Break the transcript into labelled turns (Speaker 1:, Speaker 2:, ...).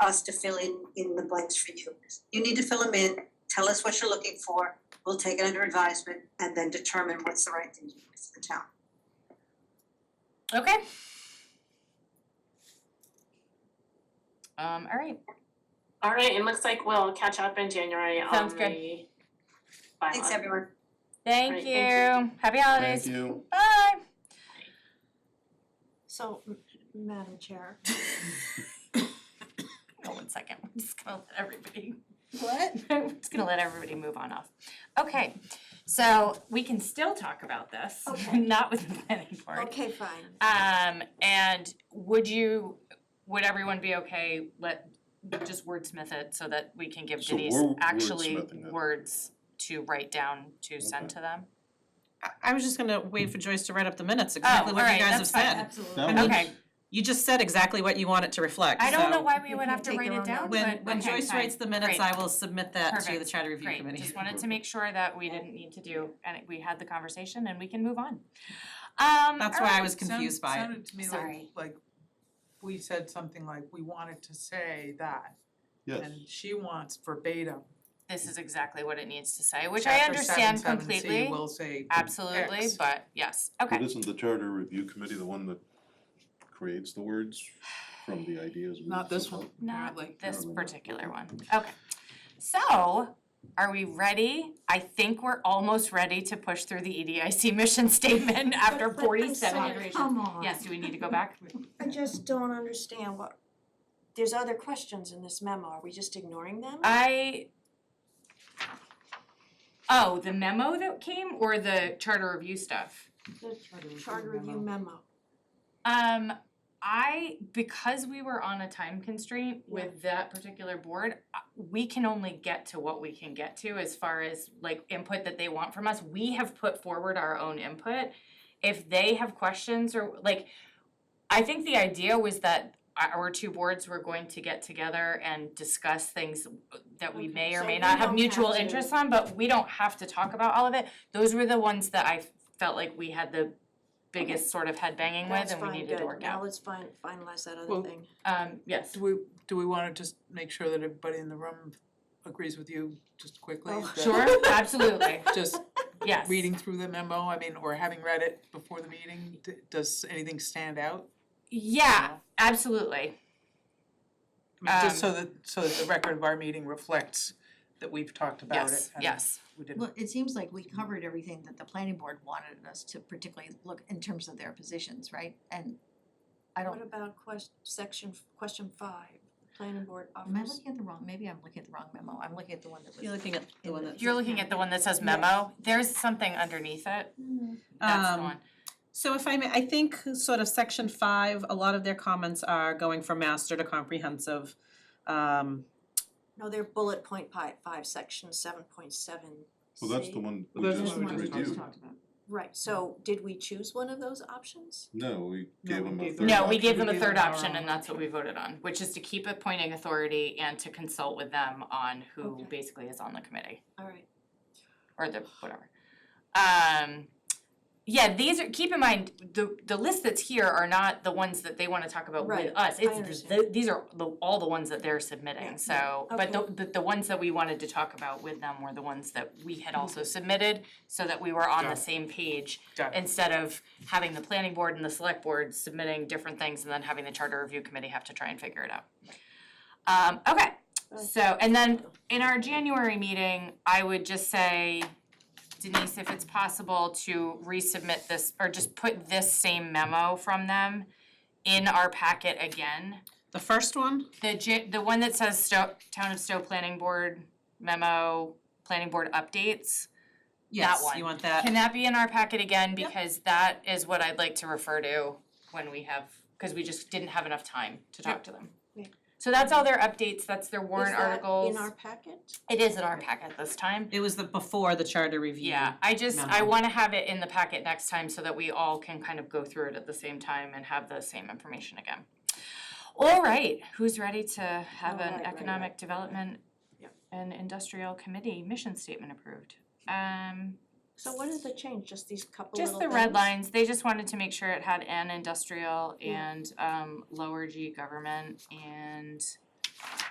Speaker 1: us to fill in, in the blanks for you. You need to fill them in, tell us what you're looking for, we'll take it under advisement and then determine what's the right thing to do for the town.
Speaker 2: Okay. Um, all right,
Speaker 3: All right, it looks like we'll catch up in January on
Speaker 2: Sounds
Speaker 3: the
Speaker 2: good.
Speaker 3: bylaw.
Speaker 1: Thanks, everyone.
Speaker 2: thank
Speaker 3: Great,
Speaker 2: you.
Speaker 3: thank
Speaker 2: Happy holidays.
Speaker 4: Thank you.
Speaker 2: Bye.
Speaker 5: So, m- Madam Chair.
Speaker 2: Hold on one second, I'm just gonna let everybody. What? I'm just gonna let everybody move on off. Okay, so we can still talk about this,
Speaker 5: Okay.
Speaker 2: not with the planning board.
Speaker 5: Okay, fine.
Speaker 2: Um, and would you, would everyone be okay, let, just wordsmith it so that we can give
Speaker 4: So
Speaker 2: Denise
Speaker 4: we're
Speaker 2: actually
Speaker 4: wordsmithing it.
Speaker 2: words to write down, to send
Speaker 4: Okay.
Speaker 2: to them?
Speaker 6: I, I was just gonna wait for Joyce to write up the minutes, exactly
Speaker 2: Oh,
Speaker 6: what
Speaker 2: alright,
Speaker 6: you guys have
Speaker 2: that's fine.
Speaker 6: said.
Speaker 5: Absolutely.
Speaker 4: That
Speaker 6: I mean,
Speaker 4: was-
Speaker 2: Okay,
Speaker 6: You just said exactly what you want it to reflect,
Speaker 2: I don't know
Speaker 6: so
Speaker 2: why we
Speaker 5: You
Speaker 2: would
Speaker 5: can
Speaker 2: have to
Speaker 5: take
Speaker 2: write
Speaker 5: your
Speaker 2: it
Speaker 5: own
Speaker 2: down,
Speaker 5: notes.
Speaker 6: When,
Speaker 2: but,
Speaker 6: when
Speaker 2: okay,
Speaker 6: Joyce
Speaker 2: fine.
Speaker 6: writes the minutes,
Speaker 2: Great.
Speaker 6: I will submit that to the
Speaker 2: Perfect.
Speaker 6: charter review committee.
Speaker 2: Great, just wanted to make sure that we didn't need to do, and we had the conversation and we can move on. Um,
Speaker 6: That's why I
Speaker 2: alright.
Speaker 6: was confused by it.
Speaker 7: Sounded to me
Speaker 2: Sorry.
Speaker 7: like, like, we said something like, we wanted to say that,
Speaker 4: Yes,
Speaker 7: and she wants verbatim.
Speaker 2: This is exactly what it needs to say, which I understand
Speaker 7: Chapter seven, seven,
Speaker 2: completely,
Speaker 7: C will say.
Speaker 2: absolutely,
Speaker 7: X.
Speaker 2: but yes,
Speaker 4: but
Speaker 2: okay,
Speaker 4: isn't the charter review committee the one that creates the words from the ideas? we
Speaker 7: Not this
Speaker 4: send out?
Speaker 7: one,
Speaker 2: not
Speaker 7: apparently.
Speaker 2: this
Speaker 4: Apparently not.
Speaker 2: particular one, okay. So, are we ready? I think we're almost ready to push through the E EDIC mission statement after
Speaker 5: But- but I'm
Speaker 2: forty-seven
Speaker 5: sorry,
Speaker 2: iterations.
Speaker 5: Come on.
Speaker 2: Yes, do we need to go back?
Speaker 5: I just don't understand what, there's other questions in this memo, are we just ignoring them?
Speaker 2: Uh, I. Oh, the memo that came or the charter review stuff?
Speaker 5: The
Speaker 7: Charter review
Speaker 5: charter review
Speaker 7: memo.
Speaker 5: memo.
Speaker 2: Um, I, because we were on a time constraint with that particular board, uh, we can only get to what we can get to as far as like input that they want from us. We have put forward our own input. If they have questions or like, I think the idea was that our- our two boards were going to get together and discuss things that we may
Speaker 5: Okay,
Speaker 2: or
Speaker 5: so
Speaker 2: may
Speaker 5: we
Speaker 2: not have
Speaker 5: don't
Speaker 2: mutual
Speaker 5: have to-
Speaker 2: interests on, but we don't have to talk about all of it. Those were the ones that I felt like we had the biggest sort of head banging with
Speaker 5: That's
Speaker 2: and we
Speaker 5: fine,
Speaker 2: needed to
Speaker 5: good,
Speaker 2: work
Speaker 5: now
Speaker 2: out.
Speaker 5: let's fin- finalize that other
Speaker 7: Well,
Speaker 5: thing.
Speaker 2: Um, yes,
Speaker 7: Do we, do we wanna just make sure that everybody in the room agrees with you just quickly?
Speaker 5: Oh.
Speaker 7: that-
Speaker 2: sure, absolutely,
Speaker 7: Just
Speaker 2: yes.
Speaker 7: reading through the memo, I mean, or having read it before the meeting, d- does anything stand out?
Speaker 2: Yeah, absolutely.
Speaker 7: I mean, just so
Speaker 2: Um,
Speaker 7: that, so that the record of our meeting reflects that we've talked about it
Speaker 2: Yes,
Speaker 7: and
Speaker 2: yes.
Speaker 7: we didn't
Speaker 8: Well, it seems like we covered everything that the planning board wanted us to particularly look in terms of their positions, right? And I
Speaker 5: What
Speaker 8: don't,
Speaker 5: about quest, section, question five, planning board
Speaker 8: am I
Speaker 5: offers,
Speaker 8: looking at the wrong, maybe I'm looking at the wrong memo, I'm looking at the one that was.
Speaker 6: You're looking at the one that.
Speaker 2: You're looking at the one that says memo, there's something underneath it, that's the
Speaker 6: Um,
Speaker 2: one.
Speaker 6: So if I may, I think sort of section five, a lot of their comments are going from master to comprehensive. Um,
Speaker 5: no, they're bullet point pi- five, section seven point seven
Speaker 4: Well, that's the one we
Speaker 7: Well, that's
Speaker 4: just
Speaker 7: the one we
Speaker 4: reviewed.
Speaker 7: just
Speaker 8: talked about.
Speaker 5: Right, so did we choose one of those options?
Speaker 4: No, we
Speaker 7: No,
Speaker 4: gave
Speaker 7: we
Speaker 4: them a
Speaker 7: gave
Speaker 4: third.
Speaker 7: them-
Speaker 2: No, we
Speaker 7: option.
Speaker 2: gave
Speaker 7: We
Speaker 2: them a
Speaker 7: gave
Speaker 2: third
Speaker 7: them our
Speaker 2: option
Speaker 7: own
Speaker 2: and that's what we voted on, which is to keep appointing authority and to consult with them on who
Speaker 5: Okay.
Speaker 2: basically is on the committee
Speaker 5: All right,
Speaker 2: or the whatever. Um, yeah, these are, keep in mind, the the list that's here are not the ones that they wanna talk about with
Speaker 5: Right,
Speaker 2: us.
Speaker 5: I
Speaker 2: It's
Speaker 5: understand.
Speaker 2: the, these are the, all the ones that they're submitting, so, but the,
Speaker 5: Okay.
Speaker 2: the the ones that we wanted to talk about with them were the ones that we
Speaker 5: Mm-hmm.
Speaker 2: had also submitted so that we were on
Speaker 7: Got
Speaker 2: the
Speaker 7: it.
Speaker 2: same page
Speaker 7: Got it.
Speaker 2: instead of having the planning board and the select board submitting different things and then having the charter review committee have to try and figure it out. Um, okay, so, and then in our January meeting, I would just say, Denise, if it's possible to resubmit this, or just put this same memo from them in our packet again.
Speaker 6: the first one,
Speaker 2: The J, the one that says Stowe, Town of Stowe Planning Board memo, planning board updates.
Speaker 6: yes,
Speaker 2: one.
Speaker 6: you want that?
Speaker 2: Can that be in our packet again, because that is what I'd like to refer to when we have, cause we just didn't have enough time to talk to them.
Speaker 5: Yeah.
Speaker 2: So that's all their updates, that's their
Speaker 5: is
Speaker 2: warrant
Speaker 5: that
Speaker 2: articles.
Speaker 5: in our packet?
Speaker 2: It is in our packet this time.
Speaker 6: It was the before the charter review.
Speaker 2: Yeah, I just, I
Speaker 6: memo.
Speaker 2: wanna have it in the packet next time so that we all can kind of go through it at the same time and have the same information again. All right, who's ready to have
Speaker 5: All right,
Speaker 2: an
Speaker 5: right,
Speaker 2: economic development
Speaker 7: Yep.
Speaker 2: and industrial committee mission statement approved? Um.
Speaker 5: So what is the change, just these couple little
Speaker 2: Just the
Speaker 5: things?
Speaker 2: red lines, they just wanted to make sure it had an industrial
Speaker 5: Yeah.
Speaker 2: and um lower G government and